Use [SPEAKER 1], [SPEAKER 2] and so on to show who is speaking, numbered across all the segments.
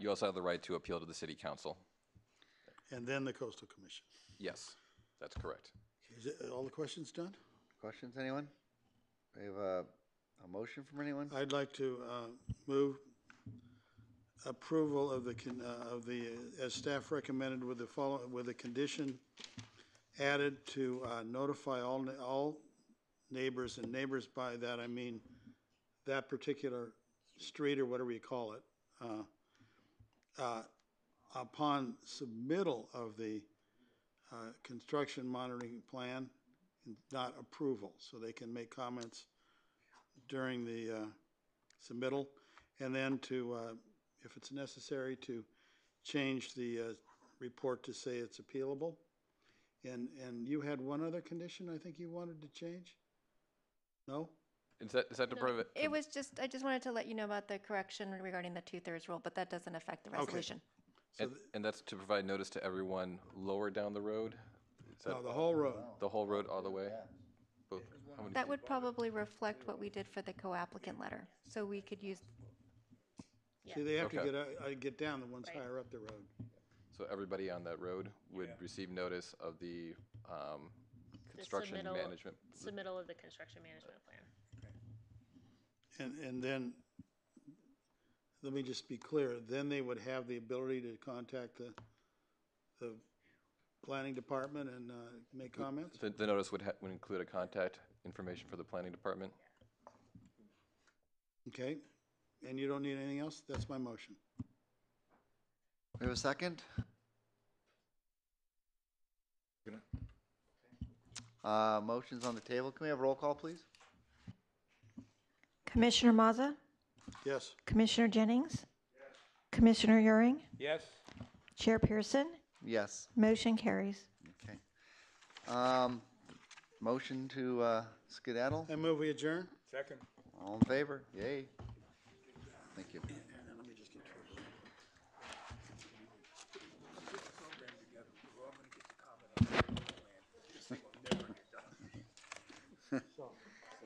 [SPEAKER 1] You also have the right to appeal to the city council.
[SPEAKER 2] and then the coastal commission.
[SPEAKER 1] Yes, that's correct.
[SPEAKER 2] Is it, all the questions done?
[SPEAKER 3] Questions, anyone? We have a, a motion from anyone?
[SPEAKER 2] I'd like to uh, move approval of the, con- uh, of the, uh, as staff recommended with the follow, with the condition added to uh, notify all, ne- all neighbors, and neighbors by that I mean that particular street or whatever you call it, uh, uh, upon submittal of the uh, construction monitoring plan, not approval, so they can make comments during the uh, submittal, and then to, uh, if it's necessary, to change the uh, report to say it's appealable. And, and you had one other condition I think you wanted to change? No?
[SPEAKER 1] Is that, is that to prevent?
[SPEAKER 4] It was just, I just wanted to let you know about the correction regarding the two-thirds rule, but that doesn't affect the resolution.
[SPEAKER 1] And, and that's to provide notice to everyone lower down the road? Is
[SPEAKER 2] No,
[SPEAKER 1] that
[SPEAKER 2] the whole road.
[SPEAKER 1] the whole road all the way? Both- how many
[SPEAKER 4] That
[SPEAKER 1] feet?
[SPEAKER 4] would probably reflect what we did for the co-applicant letter, so we could use,
[SPEAKER 2] See, they have to
[SPEAKER 1] Okay.
[SPEAKER 2] get, out- uh, get down the ones higher up the road.
[SPEAKER 1] So everybody on that road would receive notice of the um, construction
[SPEAKER 5] submittal-
[SPEAKER 1] management.
[SPEAKER 5] Submittal of the construction management plan.
[SPEAKER 2] And, and then, let me just be clear, then they would have the ability to contact the, the planning department and uh, make comments?
[SPEAKER 1] The, the notice would, ha- would include a contact information for the planning department.
[SPEAKER 2] Okay, and you don't need anything else? That's my motion.
[SPEAKER 3] We have a second? Uh, motion's on the table. Can we have roll call, please?
[SPEAKER 6] Commissioner Maza?
[SPEAKER 2] Yes,
[SPEAKER 6] Commissioner Jennings? Commissioner Euring?
[SPEAKER 7] Yes.
[SPEAKER 6] Chair Pearson?
[SPEAKER 3] Yes,
[SPEAKER 6] Motion carries.
[SPEAKER 3] okay. Um, motion to, uh, skedaddle?
[SPEAKER 2] I move we adjourn.
[SPEAKER 7] Second.
[SPEAKER 3] All in favor? Yay. Thank you.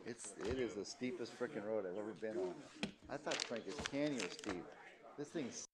[SPEAKER 3] It's, it is the steepest frickin' road I've ever been on. I thought Frank is Canyon was steep. This thing's